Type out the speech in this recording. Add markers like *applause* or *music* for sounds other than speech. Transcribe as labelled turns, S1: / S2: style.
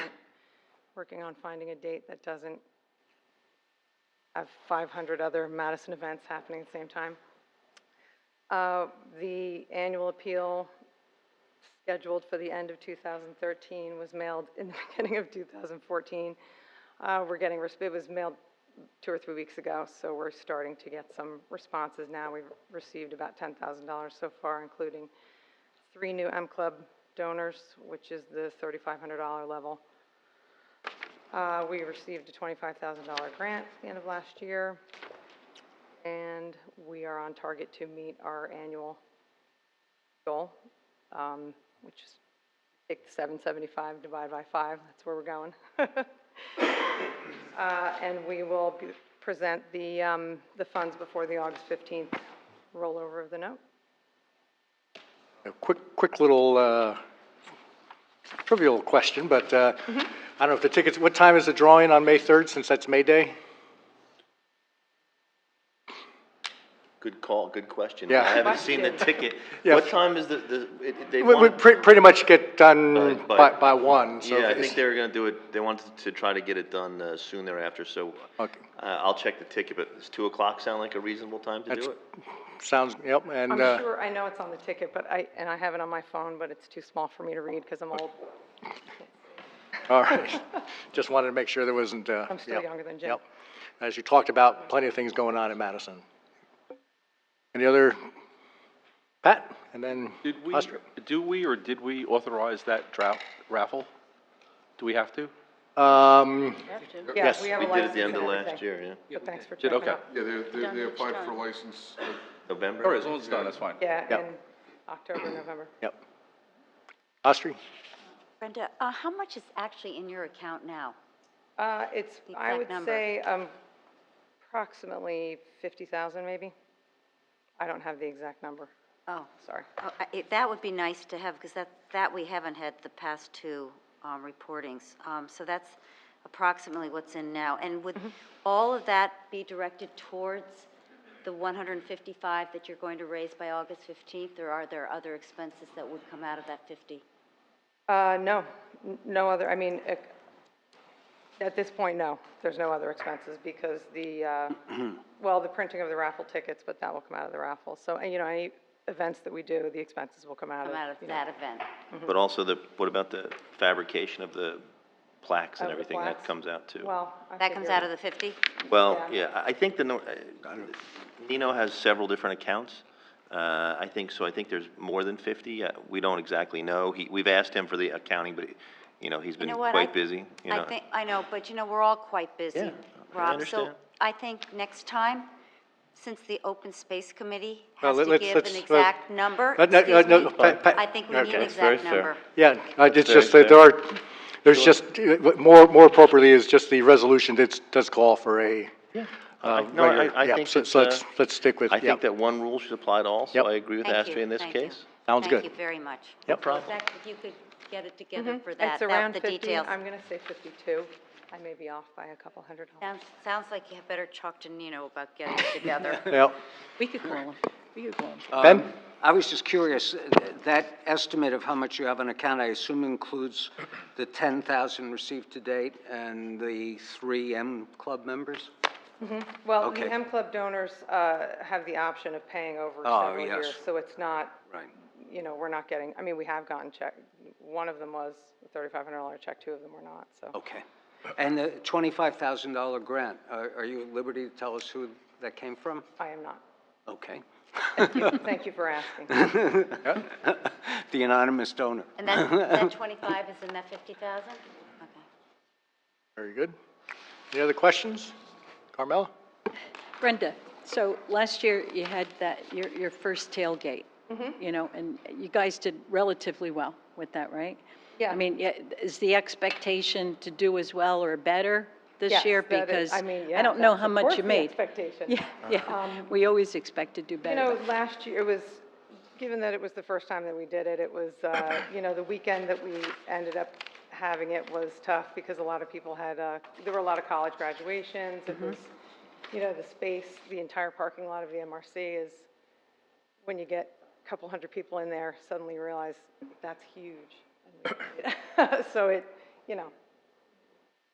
S1: working on finding a date that doesn't have five hundred other Madison events happening at the same time. Uh, the annual appeal scheduled for the end of two thousand thirteen was mailed in the *laughs* beginning of two thousand fourteen. Uh, we're getting, res- it was mailed two or three weeks ago, so we're starting to get some responses now. We've received about ten thousand dollars so far, including three new M Club donors, which is the thirty-five hundred dollar level. Uh, we received a twenty-five thousand dollar grant at the end of last year. And we are on target to meet our annual goal, um, which is take the seven seventy-five, divide by five, that's where we're going. *laughs* Uh, and we will be- present the, um, the funds before the August fifteenth rollover of the note.
S2: A quick, quick little uh, trivial question, but uh,
S1: Mm-hmm.
S2: I don't know if the tickets, what time is the drawing on May 3rd, since that's May Day?
S3: Good call, good question.
S2: Yeah.
S3: I haven't seen the ticket.
S2: Yeah.
S3: What time is the, the, it- it- they
S2: We we
S3: want?
S2: pre- pretty much get done
S3: By-
S2: by,
S3: by-
S2: by one, so.
S3: Yeah, I
S2: it's-
S3: think they were gonna do it, they wanted to try to get it done uh, soon thereafter, so.
S2: Okay.
S3: Uh, I'll check the ticket, but does two o'clock sound like a reasonable time to
S2: That's-
S3: do it?
S2: Sounds, yep, and,
S1: I'm
S2: uh,
S1: sure, I know it's on the ticket, but I, and I have it on my phone, but it's too small for me to read because I'm old. *laughs*
S2: all right. Just wanted to make sure there wasn't. uh,
S1: I'm still
S2: yep,
S1: younger than Jim.
S2: Yep. As you talked about, plenty of things going on in Madison. Any other? Pat, and then
S4: Did we,
S2: Ostrich.
S4: do we or did we authorize that drought raffle? Do we have to?
S2: Um,
S1: Yeah,
S2: Yes,
S1: we have a
S3: We did at
S1: license
S3: the end of
S1: and
S3: last
S1: everything.
S3: year, yeah.
S1: But thanks for
S4: Did,
S1: checking.
S4: okay.
S1: up.
S5: Yeah, they, they, they applied for license, uh,
S3: November?
S4: All right, Oh, as long as it's done, that's fine.
S1: Yeah,
S2: Yep.
S1: in October, November.
S2: yep. Ostrich?
S6: Brenda, uh, how much is actually in your account now?
S1: Uh, it's,
S6: The
S1: I
S6: exact
S1: would
S6: number.
S1: say, um, approximately fifty thousand maybe. I don't have the exact number,
S6: Oh,
S1: sorry.
S6: oh, I- it- that would be nice to have, because that, that we haven't had the past two um, reportings. Um, So that's approximately what's in now. And would
S1: Mm-hmm.
S6: all of that be directed towards the 155 that you're going to raise by August 15th? Or are there other expenses that would come out of that 50?
S1: Uh, no, n- no other, I mean, ec- at this point, no, there's no other expenses because the,
S6: *clears throat*
S1: uh, well, the printing of the raffle tickets, but that will come out of the raffle. So, and, you know, any events that we do, the expenses will come out of,
S6: Come out of
S1: you know,
S6: that event?
S3: But also the, what about the fabrication of the plaques
S1: Of
S3: and
S1: the
S3: everything that
S1: plaques?
S3: comes out too?
S1: Well, I
S6: That comes
S1: figure-
S6: out of the 50?
S3: Well,
S1: Yeah.
S3: yeah, I I think the, no- uh, Nino has several different accounts. Uh, I think, so I think there's more than 50. Uh, We don't exactly know. He, we've asked him for the accounting, but, you know, he's
S6: You
S3: been
S6: know what? I-
S3: quite busy, you know.
S6: I think, I know, but you know, we're all quite busy,
S3: I
S6: Rob. So
S3: understand.
S6: I think next time, since the Open Space Committee
S2: Well,
S6: has
S2: let-
S6: to
S2: let's-
S6: give
S2: let's-
S6: an
S2: let-
S6: exact number,
S2: But no-
S6: excuse
S2: no, no,
S6: me,
S2: Pa- Pa-
S6: I think we
S2: okay.
S6: need an
S2: That's
S3: very
S6: exact
S3: fair.
S6: number.
S2: Yeah, uh, it's
S3: Very
S2: just that there are, there's just, uh, more, more appropriately is just the resolution that does call for a. uh,
S3: No, I-
S2: regular-
S3: I
S2: yeah,
S3: think
S2: so-
S3: that,
S2: So
S3: uh,
S2: let's, let's stick with,
S3: I
S2: yeah,
S3: think that one rule should apply to all, so
S2: Yep.
S3: I agree with
S6: Thank you,
S3: Astrid in this
S6: thank you.
S3: case.
S2: Sounds good.
S6: Thank you very much.
S2: Yep. No
S6: problem. If you could get it together for that,
S1: It's
S6: that,
S1: around
S6: the
S1: 50,
S6: details.
S1: I'm going to say 52. I may be off by a couple hundred dollars.
S6: Sounds, sounds like you have better talk to Nino about getting it together.
S2: yeah.
S7: We could call him. We could call him.
S3: Um,
S2: Ben?
S8: I was just curious, uh, that estimate of how much you have on account, I assume includes the 10,000 received to date and the three M Club members?
S1: Well,
S8: Okay.
S1: the M Club donors uh, have the option of paying over
S8: Oh,
S1: several
S8: yes.
S1: years. So it's not,
S8: Right.
S1: you know, we're not getting, I mean, we have gotten check. One of them was a $3,500 check, two of them were not, so.
S8: Okay. And the $25,000 grant, uh, are are you at liberty to tell us who that came from?
S1: I am
S8: *laughs*
S1: not.
S8: Okay.
S1: Thank you for asking.
S8: The anonymous donor.
S6: And that, that 25 is in that 50,000? Okay.
S2: Very good. Any other questions? Carmella?
S7: Brenda, so last year you had that, your, your first tailgate.
S1: Mm-hmm.
S7: You know, and you guys did relatively well with that, right?
S1: Yeah.
S7: I mean, yeah, is the expectation to do as well or better this
S1: Yes,
S7: year?
S1: that is-
S7: Because
S1: I mean, yeah,
S7: I don't know
S1: that's
S7: how
S1: of
S7: much
S1: course
S7: you
S1: the
S7: made.
S1: expectation. Um,
S7: Yeah, yeah. We always expect to do
S1: You
S7: better.
S1: know, last year, it was, given that it was the first time that we did it, it was, uh, you know, the weekend that we ended up having it was tough because a lot of people had, uh, there were a lot of college graduations. It was, you know, the space, the entire parking lot of the MRC is, when you get a couple hundred people in there, suddenly you realize that's huge. And we- *laughs* So it, you know,